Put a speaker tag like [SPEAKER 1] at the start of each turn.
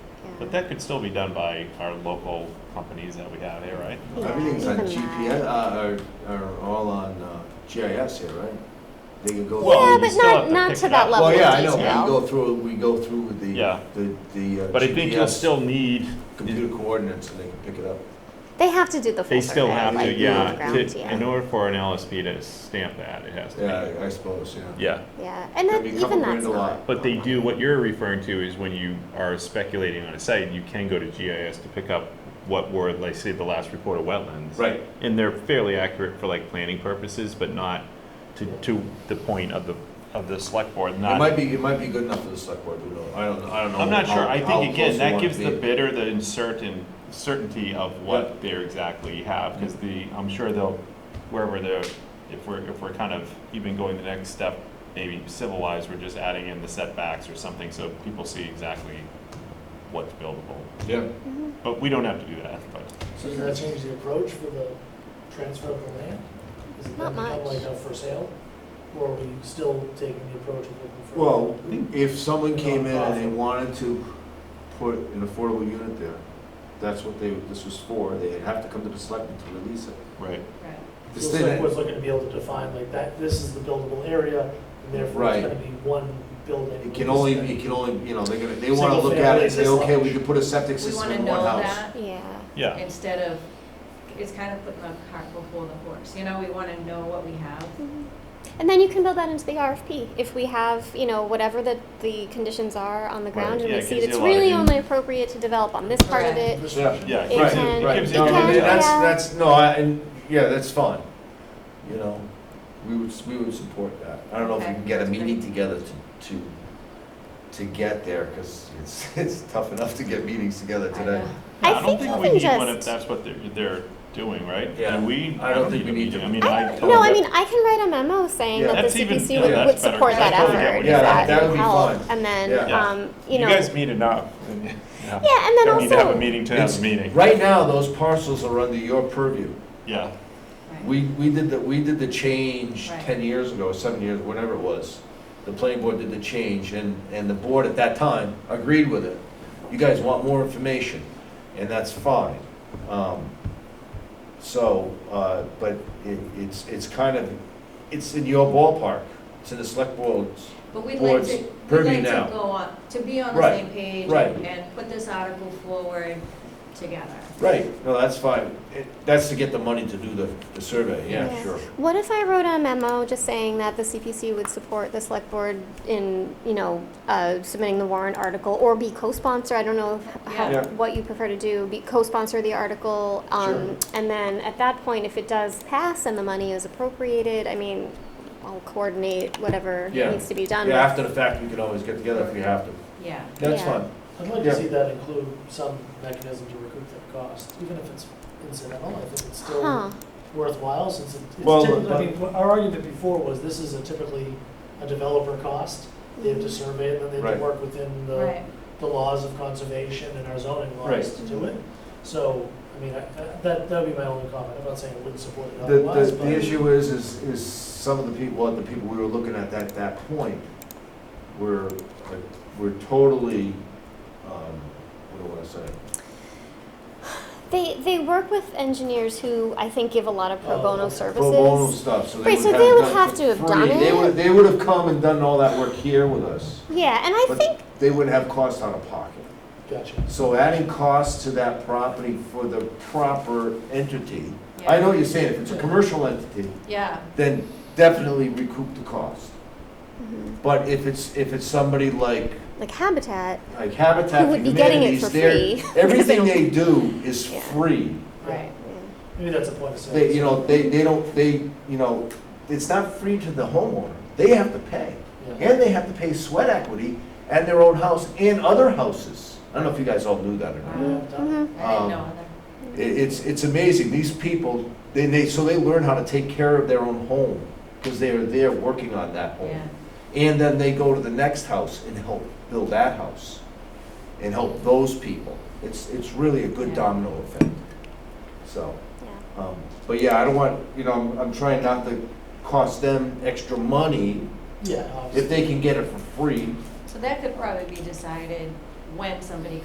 [SPEAKER 1] But that could still be done by our local companies that we have here, right?
[SPEAKER 2] Yeah,
[SPEAKER 3] Everything's on
[SPEAKER 2] even
[SPEAKER 3] GPS, uh, are, are all on uh, GIS here, right? They can go.
[SPEAKER 1] Well,
[SPEAKER 3] through-
[SPEAKER 2] Yeah,
[SPEAKER 1] you
[SPEAKER 2] but
[SPEAKER 1] still have
[SPEAKER 2] not,
[SPEAKER 1] to
[SPEAKER 2] not
[SPEAKER 1] pick
[SPEAKER 2] to
[SPEAKER 1] it
[SPEAKER 2] that
[SPEAKER 1] up.
[SPEAKER 2] level
[SPEAKER 3] Well,
[SPEAKER 2] of
[SPEAKER 3] yeah, I know, we
[SPEAKER 2] detail.
[SPEAKER 3] go through, we go through with the,
[SPEAKER 1] Yeah.
[SPEAKER 3] the, the uh,
[SPEAKER 1] But I think you'll
[SPEAKER 3] GPS,
[SPEAKER 1] still need,
[SPEAKER 3] computer coordinates, and they can pick it up.
[SPEAKER 2] They have to do the full
[SPEAKER 1] they still
[SPEAKER 2] survey,
[SPEAKER 1] have
[SPEAKER 2] like,
[SPEAKER 1] to,
[SPEAKER 2] on the
[SPEAKER 1] yeah.
[SPEAKER 2] ground,
[SPEAKER 1] to-
[SPEAKER 2] yeah.
[SPEAKER 1] In order for an LSP to stamp that, it has to
[SPEAKER 3] Yeah, I I suppose,
[SPEAKER 1] be. Yeah.
[SPEAKER 3] yeah.
[SPEAKER 2] Yeah, and
[SPEAKER 3] Could
[SPEAKER 2] that,
[SPEAKER 3] be a couple
[SPEAKER 2] even that's
[SPEAKER 3] grand a
[SPEAKER 2] not.
[SPEAKER 3] lot.
[SPEAKER 1] But they do, what you're referring to is when you are speculating on a site, you can go to GIS to pick up what were, like, say, the last report of wetlands.
[SPEAKER 3] Right.
[SPEAKER 1] And they're fairly accurate for like planning purposes, but not to, to the point of the, of the select board,
[SPEAKER 3] It
[SPEAKER 1] not.
[SPEAKER 3] might be, it might be good enough for the select board, who knows, I don't, I don't know.
[SPEAKER 1] I'm not sure,
[SPEAKER 3] how-
[SPEAKER 1] I
[SPEAKER 3] how
[SPEAKER 1] think again,
[SPEAKER 3] close we
[SPEAKER 1] that
[SPEAKER 3] wanna
[SPEAKER 1] gives the
[SPEAKER 3] be.
[SPEAKER 1] bidder the uncertain, certainty of
[SPEAKER 3] Yeah.
[SPEAKER 1] what they're exactly have, because the, I'm sure they'll, wherever they're, if we're, if we're kind of even going the next step, maybe civilized, we're just adding in the setbacks or something, so people see exactly what's buildable.
[SPEAKER 3] Yeah,
[SPEAKER 2] Mm-hmm.
[SPEAKER 1] But we don't have to do that, but,
[SPEAKER 4] So does that change the approach for the transfer of the land? Is it then
[SPEAKER 2] Not
[SPEAKER 4] become
[SPEAKER 2] much.
[SPEAKER 4] like a for sale? Or are we still taking the approach of looking for?
[SPEAKER 3] well, if someone came in and they wanted to put an affordable unit there, that's what they, this was for, they'd have to come to the selectmen to release it.
[SPEAKER 1] right.
[SPEAKER 5] Right.
[SPEAKER 4] The
[SPEAKER 3] This
[SPEAKER 4] select
[SPEAKER 3] thing,
[SPEAKER 4] board's looking to be able to define like that, this is the buildable area, and therefore
[SPEAKER 3] Right.
[SPEAKER 4] it's gonna be one building.
[SPEAKER 3] it can only, it can only, you know, they're gonna, they wanna
[SPEAKER 4] Single
[SPEAKER 3] look at it and say,
[SPEAKER 4] family,
[SPEAKER 3] okay,
[SPEAKER 4] this
[SPEAKER 3] we can put a septic
[SPEAKER 5] We
[SPEAKER 3] system
[SPEAKER 5] want to
[SPEAKER 3] in one
[SPEAKER 5] know
[SPEAKER 3] house.
[SPEAKER 5] that
[SPEAKER 2] Yeah,
[SPEAKER 1] Yeah,
[SPEAKER 5] instead of, it's kind of putting the cart before the horse, you know, we want to know what we have.
[SPEAKER 2] Mm-hmm. and then you can build that into the RFP if we have, you know, whatever the the conditions are on the ground,
[SPEAKER 1] Right,
[SPEAKER 2] and
[SPEAKER 1] yeah,
[SPEAKER 2] we
[SPEAKER 1] it
[SPEAKER 2] see
[SPEAKER 1] gives
[SPEAKER 2] it's
[SPEAKER 1] you a lot of
[SPEAKER 2] really
[SPEAKER 1] in-
[SPEAKER 2] only appropriate to develop on this part of
[SPEAKER 5] Correct.
[SPEAKER 2] it.
[SPEAKER 4] Restriction.
[SPEAKER 1] yeah.
[SPEAKER 2] It
[SPEAKER 1] gives you-
[SPEAKER 2] can-
[SPEAKER 1] gives
[SPEAKER 3] Right,
[SPEAKER 1] you
[SPEAKER 3] no,
[SPEAKER 2] it
[SPEAKER 1] the-
[SPEAKER 2] can-
[SPEAKER 3] and that's,
[SPEAKER 2] yeah.
[SPEAKER 3] that's, no, I, and, yeah, that's fine, you know, we would, we would support that. I don't know if we
[SPEAKER 5] Okay,
[SPEAKER 3] can get a
[SPEAKER 5] that's
[SPEAKER 3] meeting
[SPEAKER 5] great.
[SPEAKER 3] together to, to, to get there, cause it's, it's tough enough to get meetings together
[SPEAKER 5] I
[SPEAKER 3] today.
[SPEAKER 5] know.
[SPEAKER 2] I
[SPEAKER 1] Yeah, I don't
[SPEAKER 2] think you
[SPEAKER 1] think we
[SPEAKER 2] can
[SPEAKER 1] need one
[SPEAKER 2] just-
[SPEAKER 1] if that's what they're, they're doing, right?
[SPEAKER 3] Yeah.
[SPEAKER 1] And we,
[SPEAKER 3] I
[SPEAKER 1] I
[SPEAKER 3] don't
[SPEAKER 1] don't
[SPEAKER 3] think
[SPEAKER 1] need a
[SPEAKER 3] we need
[SPEAKER 1] meeting,
[SPEAKER 3] to-
[SPEAKER 1] I mean,
[SPEAKER 2] I,
[SPEAKER 1] I
[SPEAKER 2] no, I
[SPEAKER 1] totally
[SPEAKER 2] mean,
[SPEAKER 1] get,
[SPEAKER 2] I can write a memo saying
[SPEAKER 3] Yeah.
[SPEAKER 2] that the
[SPEAKER 1] That's even-
[SPEAKER 2] CPC
[SPEAKER 1] yeah,
[SPEAKER 2] would,
[SPEAKER 1] that's
[SPEAKER 2] would
[SPEAKER 1] better,
[SPEAKER 2] support
[SPEAKER 1] because
[SPEAKER 2] that
[SPEAKER 1] I totally
[SPEAKER 2] effort, if
[SPEAKER 1] get what you're
[SPEAKER 2] that
[SPEAKER 3] saying. Yeah, that
[SPEAKER 2] would
[SPEAKER 3] would be
[SPEAKER 2] help,
[SPEAKER 3] fine.
[SPEAKER 2] and then,
[SPEAKER 3] Yeah.
[SPEAKER 2] um, you
[SPEAKER 1] you
[SPEAKER 2] know.
[SPEAKER 1] guys meet enough. Yeah,
[SPEAKER 2] Yeah, and then
[SPEAKER 1] Don't need to have a
[SPEAKER 2] also-
[SPEAKER 1] meeting to have
[SPEAKER 3] It's-
[SPEAKER 1] a meeting,
[SPEAKER 3] Right now, those parcels are under your purview.
[SPEAKER 1] yeah.
[SPEAKER 5] Right.
[SPEAKER 3] We, we did the, we did the change
[SPEAKER 5] Right.
[SPEAKER 3] ten years ago, seven years, whatever it was. The planning board did the change, and, and the board at that time agreed with it. You guys want more information, and that's fine. Um, So, uh, but it, it's, it's kind of, it's in your ballpark, it's in the select board's.
[SPEAKER 5] But we'd like
[SPEAKER 3] board's
[SPEAKER 5] to, we'd
[SPEAKER 3] purview
[SPEAKER 5] like
[SPEAKER 3] now.
[SPEAKER 5] to go on, to be on the
[SPEAKER 3] Right,
[SPEAKER 5] same page
[SPEAKER 3] right.
[SPEAKER 5] and and put this article forward together.
[SPEAKER 3] Right, no, that's fine. It- That's to get the money to do the, the survey, yeah,
[SPEAKER 2] Yeah.
[SPEAKER 3] sure.
[SPEAKER 2] What if I wrote a memo just saying that the CPC would support the select board in, you know, uh, submitting the warrant article or be co-sponsor? I don't know if- how,
[SPEAKER 3] Yeah.
[SPEAKER 2] what you prefer to do, be co-sponsor the article. Um, and then at that point, if it does pass and the money is appropriated, I mean, I'll coordinate whatever
[SPEAKER 3] Yeah.
[SPEAKER 2] needs to be done.
[SPEAKER 3] Yeah, after the fact, we can always get together if we have to.
[SPEAKER 5] Yeah.
[SPEAKER 3] That's
[SPEAKER 2] Yeah.
[SPEAKER 3] fine.
[SPEAKER 4] I'd like
[SPEAKER 3] Yeah.
[SPEAKER 4] to see that include some mechanism to recoup that cost, even if it's incidental, I think it's still.
[SPEAKER 2] Huh,
[SPEAKER 4] worthwhile, since it-
[SPEAKER 3] Well,
[SPEAKER 4] it's typically, I
[SPEAKER 3] but-
[SPEAKER 4] mean, what our argument before was this is a typically a developer cost. They have to
[SPEAKER 2] Mm-hmm.
[SPEAKER 4] survey it, and then they have
[SPEAKER 3] Right.
[SPEAKER 4] to work within the,
[SPEAKER 5] Right.
[SPEAKER 4] the laws of conservation and our zoning
[SPEAKER 3] Right.
[SPEAKER 4] laws to do it. So, I mean, I- I- that, that'd be my only comment, I'm not saying I wouldn't support it
[SPEAKER 3] The, the,
[SPEAKER 4] otherwise, but.
[SPEAKER 3] the issue is, is, is some of the people, well, the people we were looking at at that point were, uh, were totally, um, what do I wanna say?
[SPEAKER 2] they, they work with engineers who I think give a lot of pro
[SPEAKER 4] Oh,
[SPEAKER 2] bono
[SPEAKER 4] okay. Pro
[SPEAKER 2] services.
[SPEAKER 3] Pro bono stuff, so they
[SPEAKER 2] Right,
[SPEAKER 3] would have
[SPEAKER 2] so they would
[SPEAKER 3] done
[SPEAKER 2] have
[SPEAKER 3] for
[SPEAKER 2] to have
[SPEAKER 3] free.
[SPEAKER 2] done
[SPEAKER 3] They
[SPEAKER 2] it.
[SPEAKER 3] would, they would have come and done all that work here with us,
[SPEAKER 2] Yeah, and I
[SPEAKER 3] but
[SPEAKER 2] think,
[SPEAKER 3] they would have costs out of pocket.
[SPEAKER 4] Gotcha.
[SPEAKER 3] So adding costs to that property for the proper entity, I
[SPEAKER 5] Yeah.
[SPEAKER 3] know what you're saying, if it's a commercial entity,
[SPEAKER 5] Yeah,
[SPEAKER 3] then definitely recoup the cost.
[SPEAKER 2] Mhm.
[SPEAKER 3] But if it's, if it's somebody like
[SPEAKER 2] like Habitat,
[SPEAKER 3] like Habitat
[SPEAKER 2] Who
[SPEAKER 3] for
[SPEAKER 2] would be getting it
[SPEAKER 3] Humanity's,
[SPEAKER 2] for
[SPEAKER 3] they're,
[SPEAKER 2] free.
[SPEAKER 3] everything they do is
[SPEAKER 2] Yeah.
[SPEAKER 3] free.
[SPEAKER 5] right.
[SPEAKER 2] yeah.
[SPEAKER 4] Maybe that's a point of sale.
[SPEAKER 3] They, you know, they, they don't, they, you know, it's not free to the homeowner, they have to pay.
[SPEAKER 4] Yeah.
[SPEAKER 3] And they have to pay sweat equity at their own house and other houses. I don't know if you guys all knew that or not.
[SPEAKER 4] Yeah, done.
[SPEAKER 2] Mhm.
[SPEAKER 5] I
[SPEAKER 3] Um,
[SPEAKER 5] didn't know that.
[SPEAKER 3] It, it's, it's amazing, these people, they, they, so they learn how to take care of their own home, because they are there working on that home.
[SPEAKER 5] Yeah,
[SPEAKER 3] And then they go to the next house and help build that house and help those people. It's, it's really a good
[SPEAKER 5] Yeah.
[SPEAKER 3] domino effect. So,
[SPEAKER 2] Yeah.
[SPEAKER 3] um, but yeah, I don't want, you know, I'm, I'm trying not to cost them extra money
[SPEAKER 4] Yeah, obviously.
[SPEAKER 3] if they can get it for free.
[SPEAKER 5] so that could probably be decided when somebody